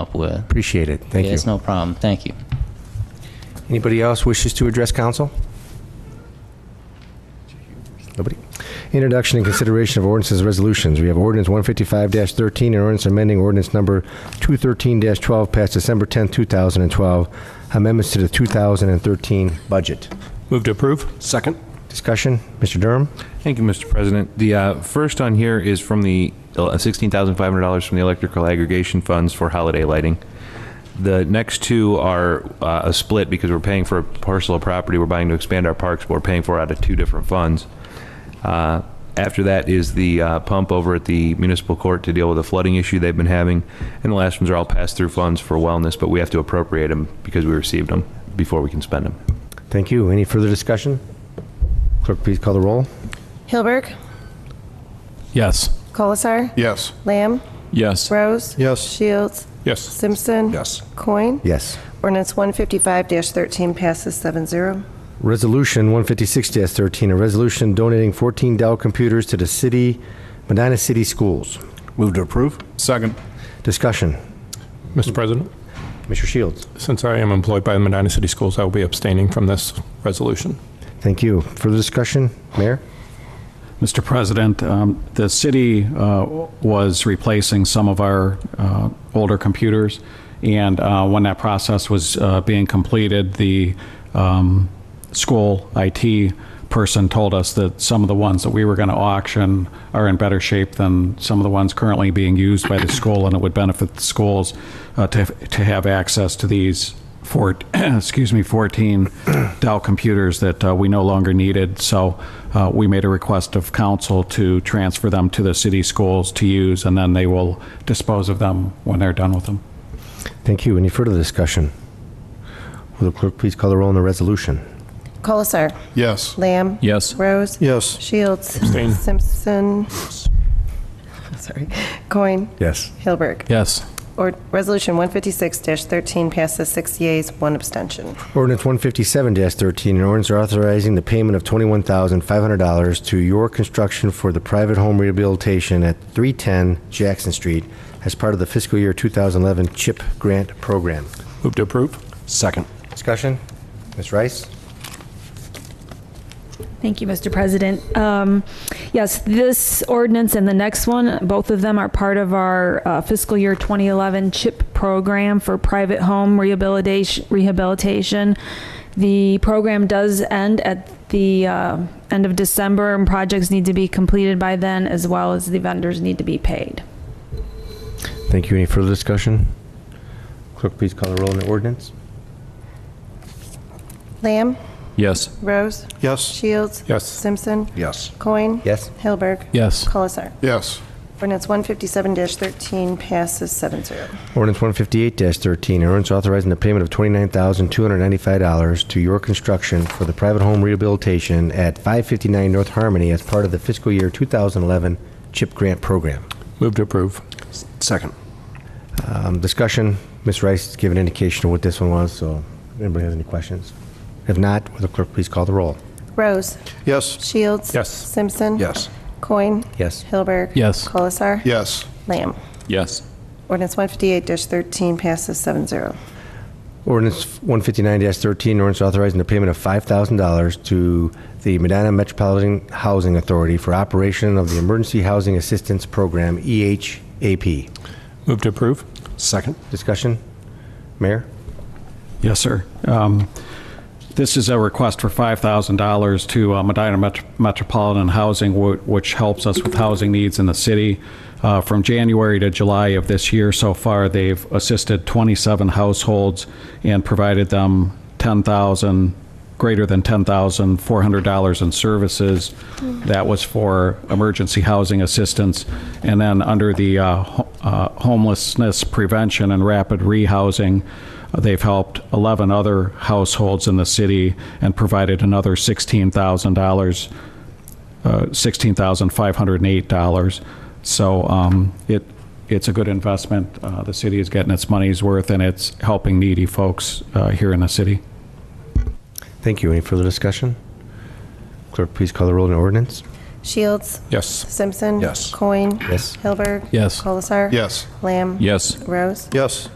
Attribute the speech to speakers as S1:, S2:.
S1: up with.
S2: Appreciate it. Thank
S1: Yeah,
S2: you.
S1: It's no problem. Thank you.
S2: Anybody else wishes to address council? Nobody? Introduction and consideration of ordinances and resolutions. We have ordinance 155-13, an ordinance amending ordinance number 213-12 passed December 10, 2012, amendments to the 2013 budget.
S3: Move to approve.
S4: Second.
S2: Discussion, Mr. Durham?
S5: Thank you, Mr. President. The uh, first on here is from the uh, $16,500 from the electrical aggregation funds for holiday lighting. The next two are uh, a split because we're paying for a parcel of property we're buying to expand our parks, but we're paying for out of two different funds. Uh, After that is the uh, pump over at the municipal court to deal with a flooding issue they've been having. And the last ones are all pass-through funds for wellness, but we have to appropriate them because we received them before we can spend them.
S2: Thank you. Any further discussion? Clerk, please call the roll.
S6: Hilberg,
S3: Yes.
S6: Colasar,
S4: Yes.
S6: Lamb,
S3: Yes.
S6: Rose.
S4: Yes.
S6: Shields,
S3: Yes.
S6: Simpson.
S4: Yes.
S6: Coin.
S2: Yes.
S6: Ordinance 155-13 passes 7-0.
S2: Resolution 156-13, a resolution donating 14 Dell computers to the city, Medina City Schools.
S4: Move to approve?
S3: Second.
S2: Discussion.
S3: Mr. President,
S2: Mr. Shields.
S3: since I am employed by the Medina City Schools, I will be abstaining from this resolution.
S2: Thank you. Further discussion? Mayor?
S7: Mr. President, um, the city uh, was replacing some of our uh, older computers, and uh, when that process was uh, being completed, the um, school IT person told us that some of the ones that we were going to auction are in better shape than some of the ones currently being used by the school, and it would benefit the schools uh, to to have access to these four, excuse me, 14 Dell computers that uh, we no longer needed. So uh, we made a request of council to transfer them to the city schools to use, and then they will dispose of them when they're done with them.
S2: Thank you. Any further discussion? Will the clerk please call the roll on the resolution?
S6: Colasar,
S4: Yes.
S6: Lamb.
S3: Yes.
S6: Rose.
S4: Yes.
S6: Shields.
S3: Abstain.
S6: Simpson. Sorry. Coin.
S2: Yes.
S6: Hilberg.
S3: Yes.
S6: Or, Resolution 156-13 passes six yeas, one abstention.
S2: Ordinance 157-13, an ordinance authorizing the payment of $21,500 to your construction for the private home rehabilitation at 310 Jackson Street as part of the fiscal year 2011 CHIP grant program.
S3: Move to approve.
S4: Second.
S2: Discussion? Ms. Rice?
S8: Thank you, Mr. President. Um, Yes, this ordinance and the next one, both of them are part of our uh, fiscal year 2011 CHIP program for private home rehabilitation. rehabilitation. The program does end at the uh, end of December, and projects need to be completed by then, as well as the vendors need to be paid.
S2: Thank you. Any further discussion? Clerk, please call the roll on the ordinance.
S6: Lamb.
S3: Yes.
S6: Rose.
S4: Yes.
S6: Shields.
S3: Yes.
S6: Simpson.
S4: Yes.
S6: Coin.
S2: Yes.
S6: Hilberg.
S3: Yes.
S6: Colasar.
S4: Yes.
S6: Ordinance 157-13 passes 7-0.
S2: Ordinance 158-13, an ordinance authorizing the payment of $29,295 to your construction for the private home rehabilitation at 559 North Harmony as part of the fiscal year 2011 CHIP grant program.
S3: Move to approve.
S4: Second.
S2: Um, Discussion, Ms. Rice gave an indication of what this one was, so anybody has any questions? If not, will the clerk please call the roll?
S6: Rose.
S4: Yes.
S6: Shields.
S3: Yes.
S6: Simpson.
S4: Yes.
S6: Coin.
S2: Yes.
S6: Hilberg.
S3: Yes.
S6: Colasar.
S4: Yes.
S6: Lamb.
S3: Yes.
S6: Ordinance 158-13 passes 7-0.
S2: Ordinance 159-13, ordinance authorizing the payment of $5,000 to the Medina Metropolitan Housing Authority for operation of the Emergency Housing Assistance Program, E EHAP.
S3: Move to approve.
S4: Second.
S2: Discussion? Mayor?
S7: Yes, sir. Um, This is a request for $5,000 to uh, Medina Met- Metropolitan Housing, wh- which helps us with housing needs in the city. Uh, From January to July of this year so far, they've assisted 27 households and provided them 10,000, greater than $10,400 in services. That was for emergency housing assistance. And then under the uh, ho- uh, homelessness prevention and rapid rehousing, uh, They've helped 11 other households in the city and provided another $16,000, uh, $16,508. So um, it, it's a good investment. Uh, The city is getting its money's worth, and it's helping needy folks uh, here in the city.
S2: Thank you. Any further discussion? Clerk, please call the roll on the ordinance.
S6: Shields.
S3: Yes.
S6: Simpson.
S4: Yes.
S6: Coin.
S2: Yes.
S6: Hilberg.
S3: Yes.
S6: Colasar.
S4: Yes.
S6: Lamb.
S3: Yes.
S6: Rose.
S4: Yes.